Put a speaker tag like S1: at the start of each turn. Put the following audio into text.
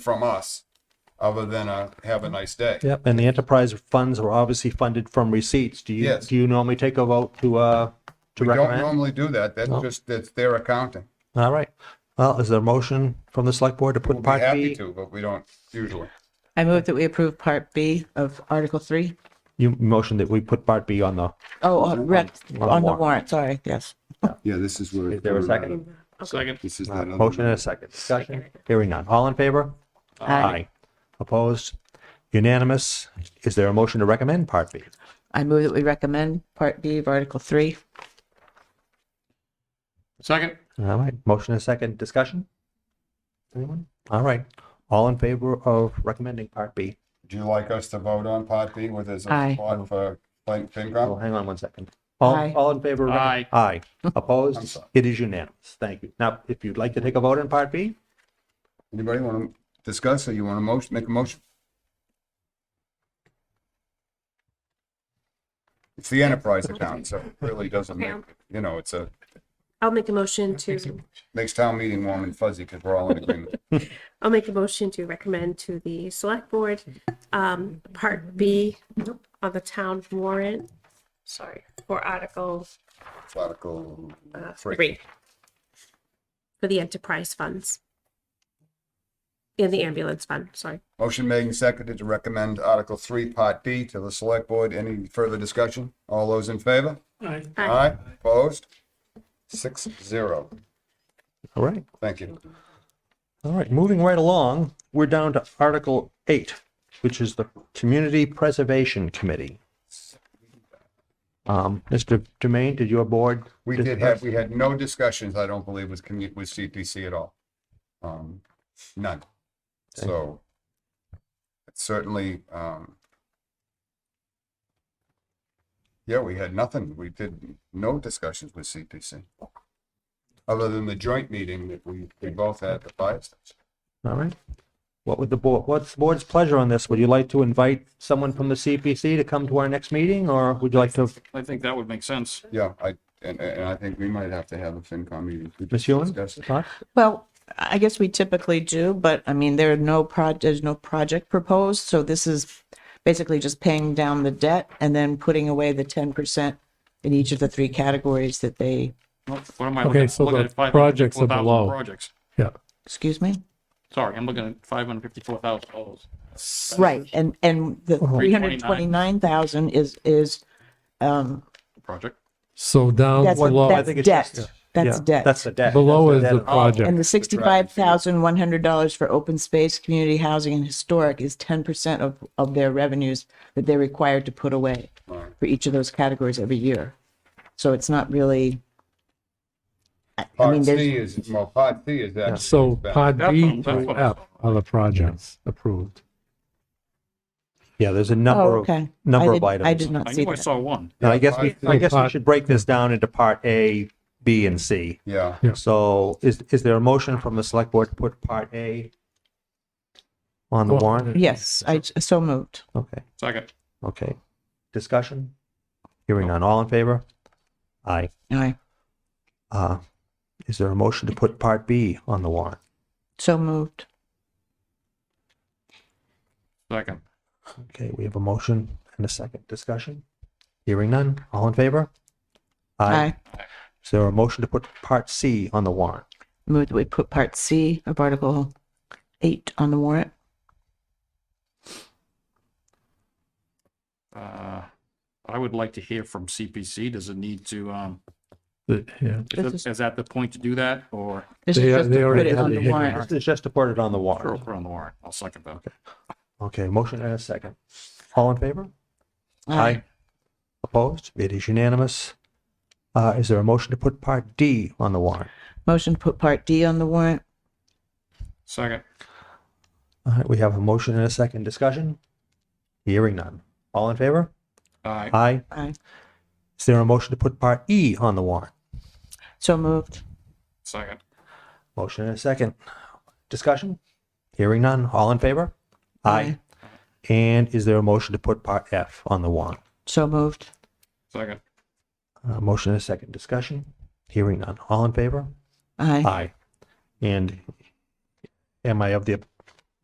S1: from us other than a, have a nice day.
S2: Yep, and the enterprise funds are obviously funded from receipts. Do you,
S1: Yes.
S2: do you normally take a vote to, uh, to
S1: We don't
S2: recommend?
S1: normally do that. That's just, that's their accounting.
S2: All right. Well, is there a motion from the select board to put
S1: We'd be
S2: part
S1: happy
S2: B?
S1: to, but we don't usually.
S3: I move that we approve Part B of Article 3.
S2: You motion that we put part B on the,
S3: Oh, on rec-
S2: on
S3: on the
S2: warrant.
S3: warrant, sorry, yes.
S4: Yeah, this is where.
S2: is there a second? Uh,
S5: Second.
S4: This is that other.
S2: Motion and a second. Discussion? Hearing none. All in favor? Aye. Opposed? Unanimous? Is there a motion to recommend part B?
S3: I move that we recommend Part B of Article 3.
S5: Second.
S2: All right, motion and second. Discussion? Anyone? All right. All in favor of recommending part B?
S1: Would you like us to vote on part B where there's a
S3: Aye.
S1: spot for Plain
S2: Oh,
S1: FinCom?
S2: hang on one second. All,
S3: Aye.
S2: all in favor? of recommend- Aye.
S1: I'm
S2: Opposed?
S1: sorry.
S2: It is unanimous. Thank you. Now, if you'd like to take a vote on Part B,
S1: Anybody want to discuss or you want to motion, make a motion? It's the enterprise account, so it really doesn't make, you know, it's a,
S6: I'll make a motion to,
S1: makes town meeting warm and fuzzy because we're all in agreement.
S6: I'll make a motion to recommend to the select board, um, part B on the town warrant. Sorry, for Article,
S1: Article
S6: uh,
S1: Three.
S6: three. For the enterprise funds. And the ambulance fund, sorry.
S1: Motion made and seconded to recommend Article Three, Part D to the Select Board. Any further discussion? All those in favor?
S5: Aye.
S1: Ah,
S6: Aye.
S1: Opposed? Six zero.
S2: all right,
S1: Thank you.
S2: all right, moving right along, we're down to Article 8, which is the Community Preservation Committee. Um, Mr. Jermaine, did your board?
S1: We did
S2: discuss-
S1: have, we had no discussions, I don't believe, with commu, with CPC at all. Um, none. So it's certainly, um, yeah, we had nothing. We did no discussions with CPC. Other than the joint meeting that we, we both had at the fire station.
S2: All right. What would the board, what's the board's pleasure on this? Would you like to invite someone from the CPC to come to our next meeting, or would you like to,
S5: I think that would make sense.
S1: Yeah, I, and, and I think we might have to have a FinCom meeting. to
S2: Ms. Hewin?
S1: discuss it.
S2: Thoughts?
S3: Well, I guess we typically do, but I mean, there are no proj, there's no project proposed, so this is basically just paying down the debt and then putting away the 10% in each of the three categories that they,
S5: Nope, What am I
S7: Okay,
S5: looking at?
S7: so
S5: Looking
S7: the
S5: at 554,000
S7: projects are below.
S5: Projects.
S7: Yeah,
S3: excuse me?
S5: Sorry, I'm looking at five hundred fifty-four thousand dollars.
S3: Right, and, and the
S2: Uh-huh.
S3: 329,000 is, is, um,
S5: Project.
S7: so down
S3: that's,
S7: below,
S2: think
S3: that's
S2: it's just-
S3: debt.
S2: Yeah,
S3: That's debt.
S2: That's the debt.
S7: below is
S2: That's
S7: the
S5: Oh.
S3: And
S7: project.
S3: the sixty-five thousand one hundred dollars for open space, community housing and historic is ten percent of, of their revenues that they're required to put away for each of those categories every year. So it's not really. I I mean,
S1: Part
S3: there's,
S1: C is, well, part C is that.
S7: So pod
S5: That's
S7: B
S5: what- that's
S7: through
S5: what-
S7: F are the projects approved.
S2: Yeah, there's a
S3: oh,
S2: number of,
S3: okay. I
S2: number of
S3: did-
S2: items.
S3: I did not
S5: I
S3: see
S5: knew I
S3: that.
S5: saw one.
S2: And I guess we, I guess we
S7: Part-
S2: should break this down into part A, B, and C.
S1: Yeah,
S7: Yeah.
S2: So is, is there a motion from the select board to put part A on the
S7: Well,
S2: warrant?
S3: Yes, I, j- so moved.
S2: Okay,
S5: Second.
S2: okay. Discussion? Hearing none. All in favor? Aye.
S3: Aye,
S2: Uh, is there a motion to put part B on the warrant?
S3: so moved.
S5: Second.
S2: Okay, we have a motion and a second discussion. Hearing none. All in favor?
S3: Aye.
S2: Is there a motion to put part C on the warrant?
S3: Move that we put part C of article eight on the warrant.
S5: Uh, I would like to hear from CPC. Does it need to, um,
S7: The- Yeah,
S3: This
S5: is it- is that the point to do that or
S3: This is
S7: They-
S3: just
S7: they
S3: to put
S7: already
S3: it
S7: have
S3: on
S7: it
S3: the
S7: here.
S3: warrant.
S2: This is just to put it on the
S5: Sure,
S2: warrant.
S5: put it on the warrant? I'll second that.
S2: Okay, motion and a second. All in favor?
S3: Aye.
S2: Opposed? It is unanimous. Uh, is there a motion to put part D on the warrant?
S3: Motion to put part D on the warrant.
S5: Second.
S2: All right, we have a motion and a second discussion. Hearing none. All in favor?
S5: Aye.
S2: Aye.
S3: Aye,
S2: Is there a motion to put part E on the warrant?
S3: so moved.
S5: Second.
S2: Motion and a second. Discussion? Hearing none. All in favor? And is there a motion to put part F on the warrant?
S3: So moved.
S5: Second.
S2: Uh, motion and a second. Discussion? Hearing none. All in favor?
S3: Aye.
S2: Aye. And am I of the